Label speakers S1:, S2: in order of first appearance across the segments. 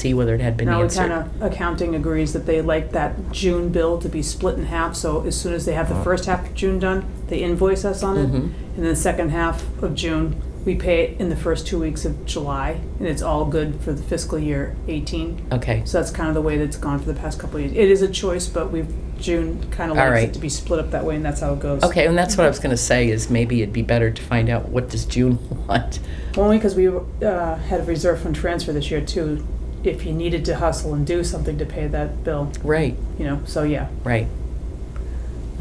S1: see whether it had been
S2: Now,
S1: answered.
S2: kind of accounting agrees that they like that June bill to be split in half, so as soon as they have
S1: Uh-huh.
S2: the first half of June done, they invoice us on it.
S1: Mhm.
S2: And then the second half of June, we pay it in the first two weeks of July, and it's all good for the fiscal year 18.
S1: Okay,
S2: So that's kind of the way that's gone for the past couple of years. It is a choice, but we've, June kind of
S1: All
S2: likes
S1: right.
S2: it to be split up that way, and that's how it goes.
S1: okay, and that's what I was gonna say, is maybe it'd be better to find out what does June want?
S2: Only because we uh, had a reserve fund transfer this year too, if you needed to hustle and do something to pay that bill,
S1: Right,
S2: you know, so yeah.
S1: right.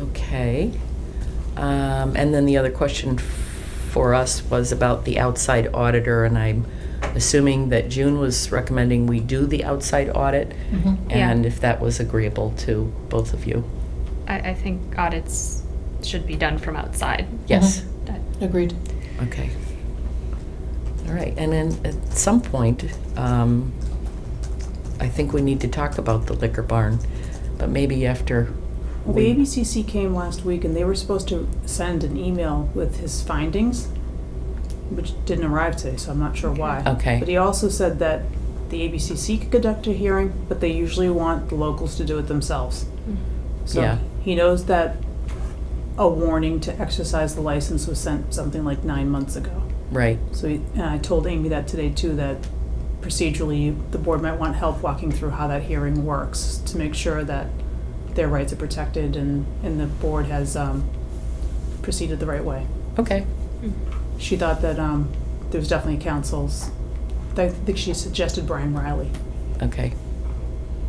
S1: Okay. Um, and then the other question f- for us was about the outside auditor, and I'm assuming that June was recommending we do the outside audit,
S3: Yeah.
S1: and if that was agreeable to both of you.
S3: I, I think audits should be done from outside.
S1: Yes?
S3: That-
S4: Agreed.
S1: Okay. All right, and then at some point, um, I think we need to talk about the liquor barn, but maybe after.
S2: Well, the
S1: we-
S2: ABCC came last week and they were supposed to send an email with his findings, which didn't arrive today, so I'm not sure why.
S1: Okay.
S2: But he also said that the ABCC could conduct a hearing, but they usually want the locals to do it themselves.
S3: mm,
S1: Yeah.
S2: So he knows that a warning to exercise the license was sent something like nine months ago.
S1: Right,
S2: So, he- and I told Amy that today too, that procedurally, the board might want help walking through how that hearing works to make sure that their rights are protected and, and the board has, um, proceeded the right way.
S1: okay,
S3: mm,
S2: She thought that, um, there was definitely councils, I think she suggested Brian Riley.
S1: okay.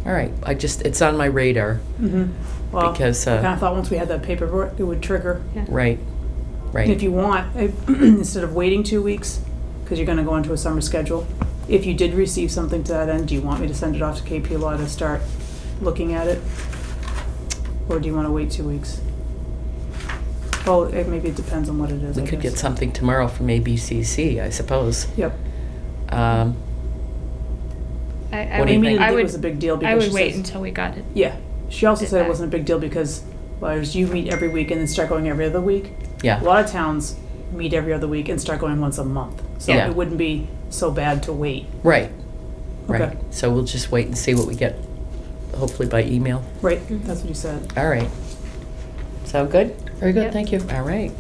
S1: All right, I just, it's on my radar,
S2: Mm-hmm. Well, I
S1: Because, uh,
S2: kinda thought once we had that paperwork, it would trigger.
S3: Yeah.
S1: right,
S2: And If
S1: right,
S2: you want, I- instead of waiting two weeks, because you're gonna go into a summer schedule, if you did receive something to that end, do you want me to send it off to KP Law to start looking at it? Or do you wanna wait two weeks? Well, it, maybe it depends on what it is,
S1: we
S2: I
S1: could
S2: guess.
S1: get something tomorrow from ABCC, I suppose.
S2: Yep.
S1: Um,
S3: I, I
S1: What
S3: would,
S1: do you
S2: Amy
S1: think?
S2: didn't
S3: I
S2: think it
S3: would,
S2: was a big deal
S3: I
S2: because she
S3: would wait
S2: says.
S3: until we got it.
S2: Yeah, she also
S3: Did
S2: said it
S3: that.
S2: wasn't a big deal because, well, as you meet every week and then start going every other week. A
S1: yeah,
S2: lot of towns meet every other week and start going once a month, so
S1: Yeah.
S2: it wouldn't be so bad to wait.
S1: right,
S2: Okay.
S1: right. So we'll just wait and see what we get, hopefully by email.
S2: Right,
S3: Mhm.
S2: that's what you said.
S1: All right. Sound good?
S4: Very good,
S3: Yep.
S4: thank you.
S1: All right.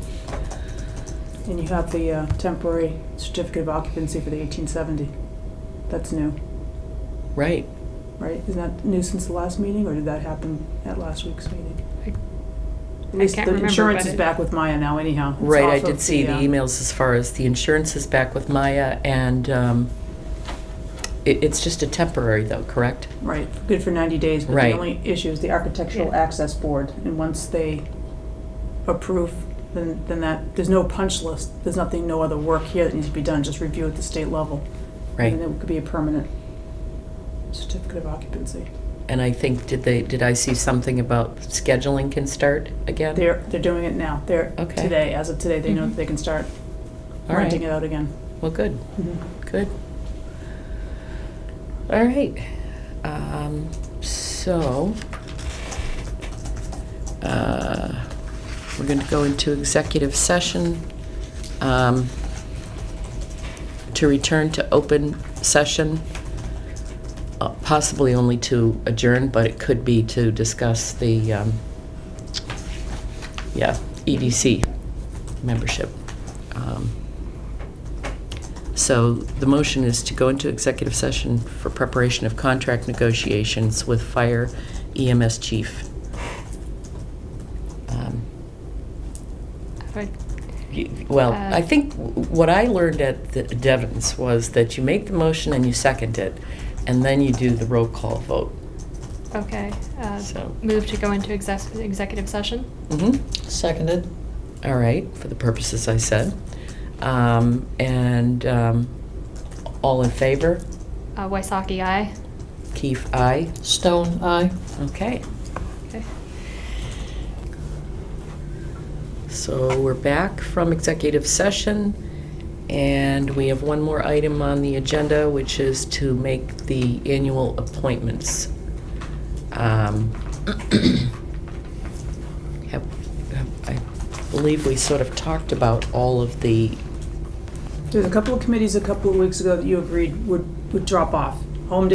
S2: And you have the uh, temporary certificate of occupancy for the 1870. That's new,
S1: Right.
S2: right? Isn't that new since the last meeting, or did that happen at last week's meeting?
S3: I-
S2: At least
S3: can't
S2: the
S3: remember,
S2: insurance
S3: but
S2: is
S3: it-
S2: back with Maya now anyhow. It's
S1: Right, I
S2: off
S1: did
S2: of
S1: see the
S2: uh,
S1: emails as far as the insurance is back with Maya, and um, it- it's just a temporary though, correct?
S2: Right, good for 90 days, but the
S1: Right.
S2: only issue is the Architectural
S3: Yeah.
S2: Access Board. And once they approve, then, then that, there's no punch list. There's nothing, no other work here that needs to be done, just review at the state level. And
S1: Right.
S2: then it could be a permanent certificate of occupancy.
S1: And I think, did they, did I see something about scheduling can start again?
S2: They're, they're doing it now. They're,
S1: Okay. Mm-hmm.
S2: today, as of today, they know that they can start
S1: All right.
S2: renting it out again.
S1: Well, good,
S2: Mhm.
S1: good. All right. Um, So, uh, we're going to go into executive session um, to return to open session, uh, possibly only to adjourn, but it could be to discuss the, um, yeah, EDC membership. Um, so the motion is to go into executive session for preparation of contract negotiations with fire EMS chief. Um,
S3: I would-
S1: you- Well,
S3: Uh,
S1: I think what I learned at the Devon's was that you make the motion and you second it, and then you do the roll call vote.
S3: Okay, uh,
S1: So-
S3: move to go into exec- executive session?
S1: Mhm.
S4: Seconded.
S1: All right, for the purposes I said. Um, And um, all in favor?
S3: Uh, Waisaki, aye.
S1: Keith, aye.
S4: Stone, aye.
S1: Okay.
S3: Okay.
S1: So we're back from executive session, and we have one more item on the agenda, which is to make the annual appointments. Um, have- have- I believe we sort of talked about all of the,
S2: There's a couple of committees a couple of weeks ago that you agreed would, would drop off.